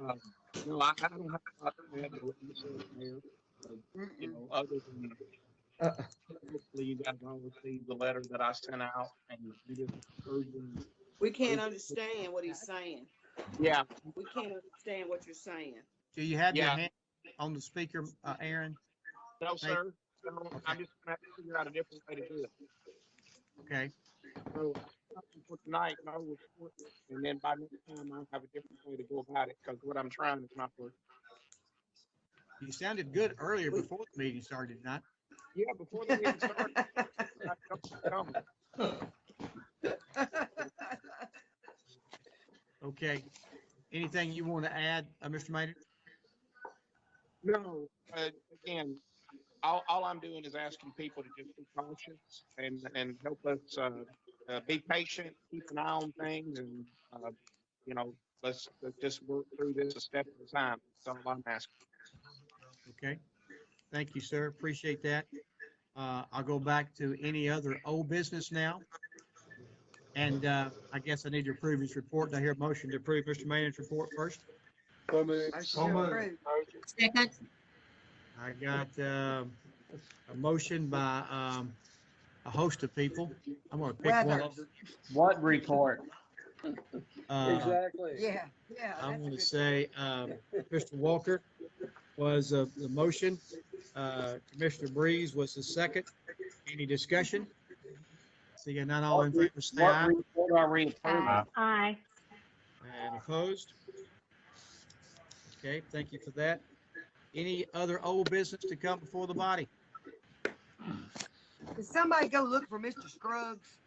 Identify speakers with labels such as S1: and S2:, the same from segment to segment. S1: Um, no, I, I don't have. I don't have a relationship there. Uh, you
S2: Mm-mm.
S1: know, other than
S3: Uh,
S1: hopefully you guys all received the letter that I sent out and you just urging.
S2: We can't understand what he's saying.
S1: Yeah,
S2: We can't understand what you're saying.
S3: do you have your
S1: Yeah.
S3: hand on the speaker, uh, Aaron?
S1: no,
S3: Thank-
S1: sir. No, I'm just gonna have to figure out a different way to do it.
S3: Okay,
S1: So nothing for tonight, no report, and then by next time I'll have a different way to go about it, because what I'm trying is not working.
S3: you sounded good earlier before the meeting started, did not?
S1: Yeah, before the meeting starts, I don't know.
S3: Okay. Anything you want to add, uh, Mr. Mayor?
S1: No, uh, again, all, all I'm doing is asking people to just be cautious and, and help us, uh, uh, be patient, keep an eye on things and, uh, you know, let's, let's just work through this a step at a time. That's all I'm asking.
S3: Okay. Thank you, sir. Appreciate that. Uh, I'll go back to any other old business now. And, uh, I guess I need to approve his report. Do I hear a motion to approve Mr. Mayor's report first?
S4: So moved.
S2: Motion to approve.
S5: Second,
S3: I got um, a motion by um, a host of people. I'm gonna pick one. Uh, of
S2: Weathers.
S6: What report?
S3: uh,
S4: Exactly.
S2: Yeah, yeah. that's a
S3: I'm gonna
S2: good-
S3: say um, Mr. Walker was uh, the motion. Uh, Commissioner Breeze was the second. Any discussion? Seeing none, all in favor, say
S6: What
S3: aye.
S6: report are we approving?
S5: aye.
S3: And opposed? Okay, thank you for that. Any other old business to come before the body?
S7: Did somebody go look for Mr. Scruggs?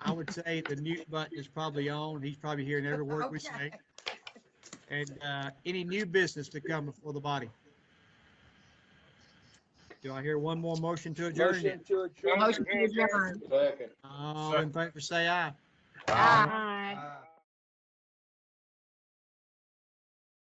S3: I would say the mute button is probably on. He's probably hearing every word we say. And uh, any new business to come before the body? Do I hear one more motion to adjourn?
S4: Motion to adjourn.
S5: Motion to adjourn.
S4: Second.
S3: All in favor, say aye.
S5: Aye.